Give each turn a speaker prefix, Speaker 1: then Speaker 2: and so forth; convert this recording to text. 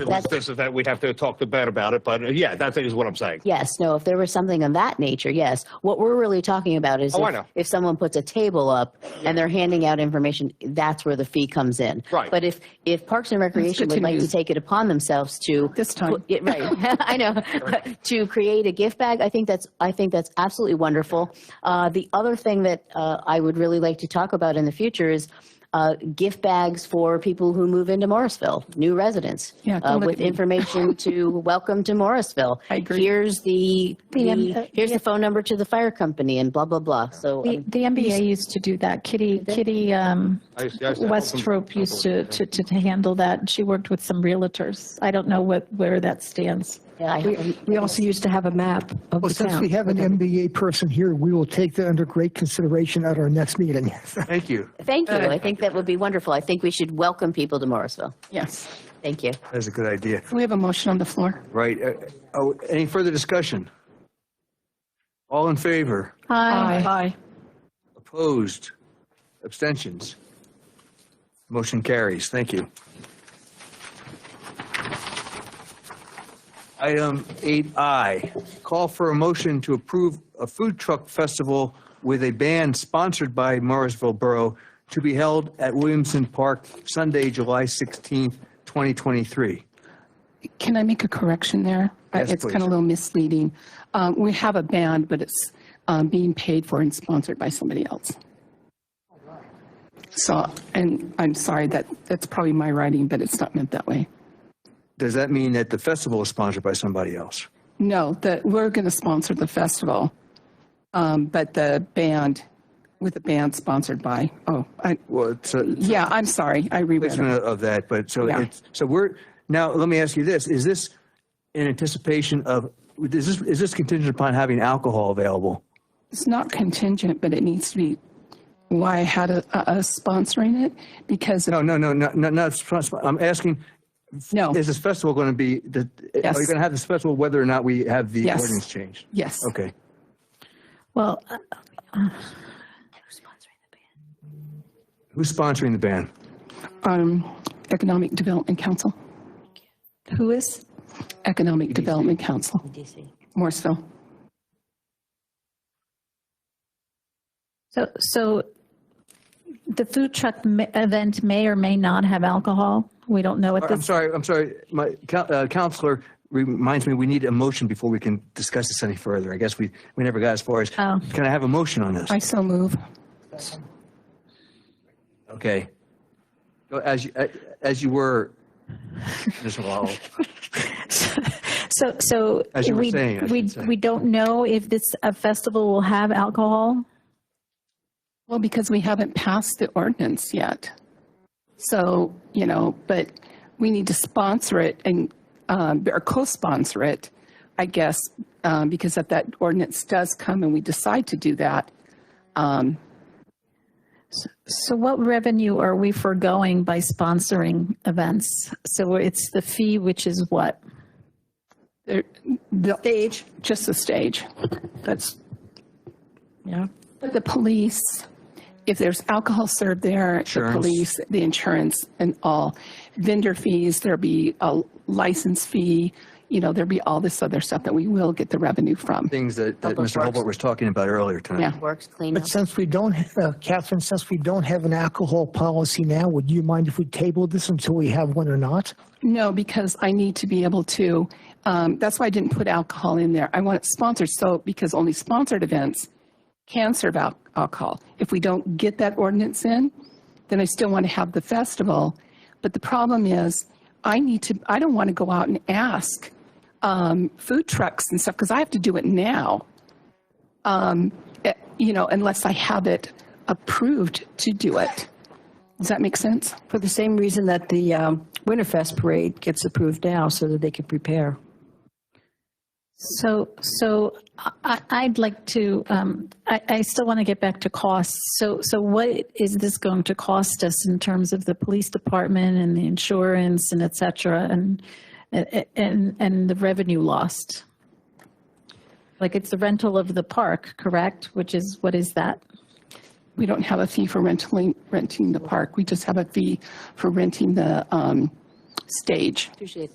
Speaker 1: It was this is that we have to talk to Ben about it, but uh, yeah, that is what I'm saying.
Speaker 2: Yes, no, if there was something of that nature, yes. What we're really talking about is
Speaker 1: Oh, I
Speaker 2: if,
Speaker 1: know.
Speaker 2: if someone puts a table up and they're handing out information, that's where the fee comes in.
Speaker 1: Right.
Speaker 2: But if, if Parks and Recreation would like to
Speaker 3: news.
Speaker 2: take it upon themselves to.
Speaker 3: This time.
Speaker 2: put- yeah, Right, I know, to create a gift bag, I think that's, I think that's absolutely wonderful. Uh, The other thing that uh, I would really like to talk about in the future is uh, gift bags for people who move into Morrisville, new residents.
Speaker 3: Yeah,
Speaker 2: uh,
Speaker 3: don't look
Speaker 2: With
Speaker 3: at me.
Speaker 2: information to welcome to Morrisville.
Speaker 3: I agree.
Speaker 2: Here's the,
Speaker 4: The, um,
Speaker 2: the-
Speaker 4: uh,
Speaker 2: here's
Speaker 4: yeah.
Speaker 2: the phone number to the fire company and blah, blah, blah. So,
Speaker 4: The,
Speaker 2: um,
Speaker 4: the MBA used to do that. Kitty, Kitty um,
Speaker 1: I used- I used to help them.
Speaker 4: Westrop used to, to, to to handle that. and She worked with some realtors. I don't know what, where that stands.
Speaker 2: yeah, I-
Speaker 5: We also used to have a map of the
Speaker 6: Well, since we
Speaker 5: town.
Speaker 6: have an MBA person here, we will take that under great consideration at our next meeting.
Speaker 1: Thank you.
Speaker 2: thank you. I think that would be wonderful. I think we should welcome people to Morrisville.
Speaker 3: Yes.
Speaker 2: Thank you.
Speaker 7: That's a good idea.
Speaker 3: We have a motion on the floor.
Speaker 7: Right. uh, Oh, any further discussion? All in favor?
Speaker 4: Hi.
Speaker 3: Aye.
Speaker 7: Opposed? Abstentions? Motion carries. Thank you. Item 8I, call for a motion to approve a food truck festival with a band sponsored by Morrisville Borough to be held at Williamson Park Sunday, July 16th, 2023.
Speaker 3: Can I make a correction there? Uh,
Speaker 7: Yes,
Speaker 3: It's
Speaker 7: please.
Speaker 3: kind of a little misleading. Um, We have a band, but it's um, being paid for and sponsored by somebody else. So, and I'm sorry that, that's probably my writing, but it's not meant that way.
Speaker 7: Does that mean that the festival is sponsored by somebody else?
Speaker 3: No, that, we're going to sponsor the festival, um, but the band, with the band sponsored by, oh, I,
Speaker 7: Well, it's a
Speaker 3: yeah, I'm sorry, I reread it.
Speaker 7: placement of that, but so
Speaker 3: Yeah.
Speaker 7: it's, so we're, now, let me ask you this, is this in anticipation of, is this, is this contingent upon having alcohol available?
Speaker 3: It's not contingent, but it needs to be, why I had a- a- us sponsoring it, because,
Speaker 7: No, no, no, no, no, not sp- I'm asking,
Speaker 3: no,
Speaker 7: is this festival going to be, the-
Speaker 3: Yes.
Speaker 7: are you going to have this festival whether or not we have the
Speaker 3: Yes.
Speaker 7: ordinance changed?
Speaker 3: yes.
Speaker 7: Okay.
Speaker 4: Well, uh,
Speaker 7: Who's sponsoring the band?
Speaker 3: Um, Economic Development Council,
Speaker 4: who is?
Speaker 3: Economic Development Council, Morrisville.
Speaker 4: So, so the food truck ma- event may or may not have alcohol. We don't know at
Speaker 7: I'm
Speaker 4: this.
Speaker 7: sorry, I'm sorry, my coun- uh, counselor reminds me we need a motion before we can discuss this any further. I guess we, we never got as far as,
Speaker 4: Oh.
Speaker 7: can I have a motion on this?
Speaker 3: I so move.
Speaker 7: Okay. Go As, you- uh, as you were, Ms. Wallo.
Speaker 4: So, so.
Speaker 7: As you were
Speaker 4: we-
Speaker 7: saying, I
Speaker 4: We,
Speaker 7: should say.
Speaker 4: we don't know if this uh, festival will have alcohol.
Speaker 3: Well, because we haven't passed the ordinance yet. So, you know, but we need to sponsor it and, um, or co-sponsor it, I guess, um, because if that ordinance does come and we decide to do that,
Speaker 4: So what revenue are we foregoing by sponsoring events? So it's the fee, which is what?
Speaker 3: there- the. Stage. Just the stage. That's,
Speaker 4: Yeah.
Speaker 3: But the police, if there's alcohol served there, the
Speaker 7: Insurance.
Speaker 3: police, the insurance and all, vendor fees, there'll be a license fee, you know, there'll be all this other stuff that we will get the revenue from.
Speaker 7: Things that, that
Speaker 2: Public
Speaker 7: Mr. Hobart was talking about earlier tonight.
Speaker 3: Yeah.
Speaker 2: Works cleanup.
Speaker 6: But since we don't, uh, Catherine, since we don't have an alcohol policy now, would you mind if we table this until we have one or not?
Speaker 3: No, because I need to be able to, um, that's why I didn't put alcohol in there. I want it sponsored, so, because only sponsored events can serve al- alcohol. If we don't get that ordinance in, then I still want to have the festival. But the problem is, I need to, I don't want to go out and ask um, food trucks and stuff, because I have to do it now. Um, eh, You know, unless I have it approved to do it. Does that make sense?
Speaker 5: For the same reason that the um, Winterfest Parade gets approved now so that they can prepare.
Speaker 4: So, so I- I, I'd like to, um, I, I still want to get back to costs. So, so what is this going to cost us in terms of the police department and the insurance and et cetera? And, and, and the revenue lost? Like it's the rental of the park, correct? Which is, what is that?
Speaker 3: We don't have a fee for renting, renting the park. We just have a fee for renting the um, stage.
Speaker 2: Usually